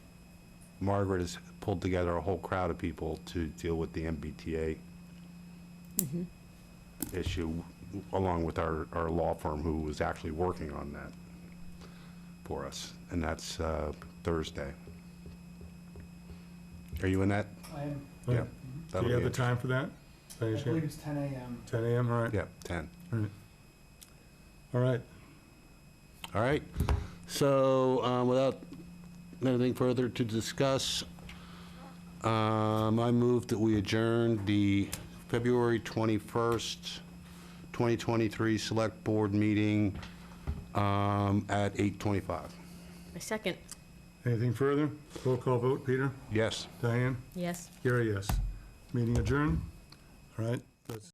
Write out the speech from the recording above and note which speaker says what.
Speaker 1: Margaret has pulled together a whole crowd of people to deal with the MBTA issue, along with our, our law firm who was actually working on that for us, and that's uh, Thursday. Are you in that?
Speaker 2: I am,
Speaker 1: Yeah.
Speaker 3: Do
Speaker 1: that'll
Speaker 3: you have
Speaker 1: be it.
Speaker 3: the time for that?
Speaker 2: I
Speaker 3: By any
Speaker 2: believe
Speaker 3: chance?
Speaker 2: it's ten AM.
Speaker 3: Ten AM, all right.
Speaker 1: Yeah, 10.
Speaker 3: All right. All right,
Speaker 1: All right, so um, without anything further to discuss, um, I move that we adjourn the February 21st, 2023 Select Board Meeting um, at 8:25.
Speaker 4: I second,
Speaker 3: anything further? Roll call vote, Peter?
Speaker 1: Yes?
Speaker 3: Diane?
Speaker 4: yes.
Speaker 3: Gary, yes. Meeting adjourned? All right, that's-